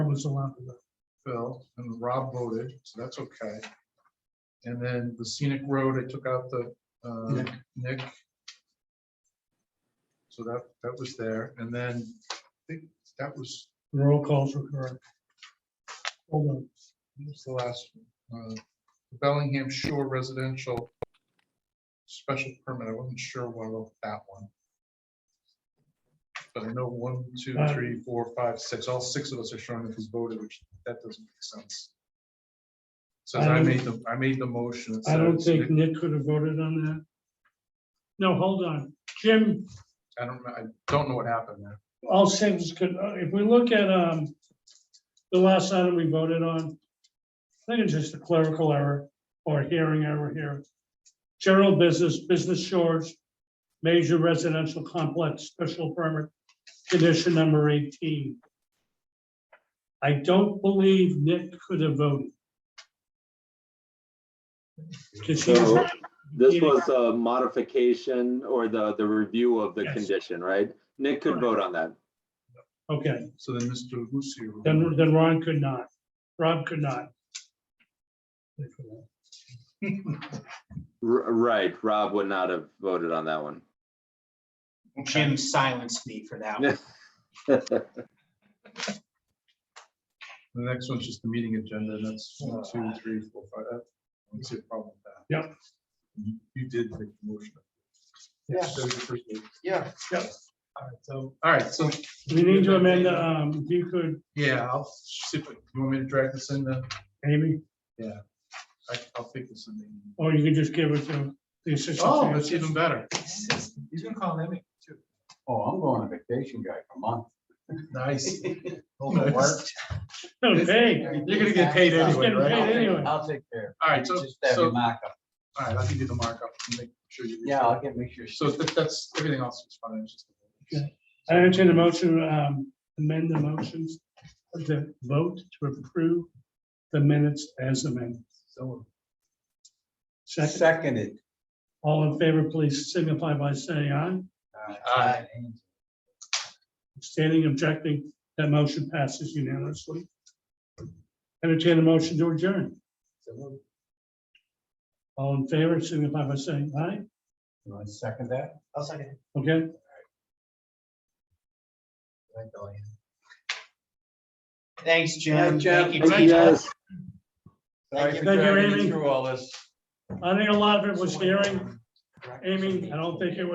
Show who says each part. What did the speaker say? Speaker 1: was allowed to
Speaker 2: Phil, and Rob voted, so that's okay. And then the scenic road, I took out the uh, Nick. So that, that was there, and then I think that was,
Speaker 1: vote. Roll calls were correct. Hold on.
Speaker 2: what was the last? one? Uh, Bellingham Shore Residential Special Permit, I wasn't sure what about that one. But I know one, two,
Speaker 1: Uh,
Speaker 2: three, four, five, six, all six of us are showing that who's voted, which that doesn't make sense. Since
Speaker 1: I
Speaker 2: I
Speaker 1: don't-
Speaker 2: made the, I made the motion. it
Speaker 1: Um, I don't
Speaker 2: says
Speaker 1: think Nick could have voted on that. No, hold on. Jim,
Speaker 2: I don't, I don't know what happened there.
Speaker 1: all six could, uh, if we look at um, the last item we voted on, I think it's just a clerical error or a hearing error here. General business, business shores, major residential complex, special permit, condition number 18. I don't believe Nick could have voted. 'Cause he was-
Speaker 3: So this was a modification or the, the review of the
Speaker 1: Yes.
Speaker 3: condition, right? Nick could vote on that.
Speaker 1: Okay,
Speaker 2: So then Mr. Lucio.
Speaker 1: then, then Ron could not. Rob could not.
Speaker 3: R- Right, Rob would not have voted on that one.
Speaker 4: Jim silenced me for that one.
Speaker 2: The next one's just the meeting agenda, and that's one, two, three, four, five. I don't see a problem with that.
Speaker 1: Yep.
Speaker 2: You- You did make the motion.
Speaker 4: Yeah.
Speaker 2: So you first did.
Speaker 4: Yeah.
Speaker 2: All right, so, all right, so,
Speaker 1: We need to amend, um, if you could,
Speaker 2: yeah, I'll see if, you want me to drag this in then?
Speaker 1: Amy,
Speaker 2: I, I'll pick this in. the-
Speaker 1: or you can just give it to the assistant.
Speaker 2: Oh,
Speaker 1: secretary.
Speaker 2: that's even better.
Speaker 4: He's gonna call Emmy too.
Speaker 5: Oh, I'm going on vacation, guy, for a month.
Speaker 2: Nice.
Speaker 5: Over work.
Speaker 1: Okay,
Speaker 2: You're gonna get paid
Speaker 1: He's
Speaker 2: anyway,
Speaker 1: getting paid
Speaker 2: right?
Speaker 1: anyway.
Speaker 5: I'll take care.
Speaker 2: All right,
Speaker 5: It's
Speaker 2: so,
Speaker 5: Just have
Speaker 2: so,
Speaker 5: your
Speaker 2: all
Speaker 5: markup.
Speaker 2: right, I'll give you the markup. and make sure you-
Speaker 5: Yeah, I'll get, make sure.
Speaker 2: So that- that's, everything else is fine. it's just-
Speaker 1: Okay. I entertain a motion, um, amend the motions, the vote to approve the minutes as amended.
Speaker 2: So,
Speaker 1: Second,
Speaker 5: Seconded.
Speaker 1: all in favor, please signify by saying aye.
Speaker 5: Uh,
Speaker 2: Aye.
Speaker 1: Standing objecting, that motion passes unanimously. Entertain a motion to adjourn. All in favor, signify by saying aye.
Speaker 5: You want to second that?
Speaker 4: I'll second.
Speaker 1: Okay,
Speaker 4: Thanks, Jim.
Speaker 5: Thanks, Jim.
Speaker 4: Thank you,
Speaker 3: Thank you,
Speaker 4: teacher.
Speaker 3: guys.
Speaker 5: Sorry
Speaker 4: you.
Speaker 1: Thank you,
Speaker 5: for dragging you
Speaker 1: Amy.
Speaker 5: Through all this.
Speaker 1: I think a lot of it was hearing, Amy, I don't think it was.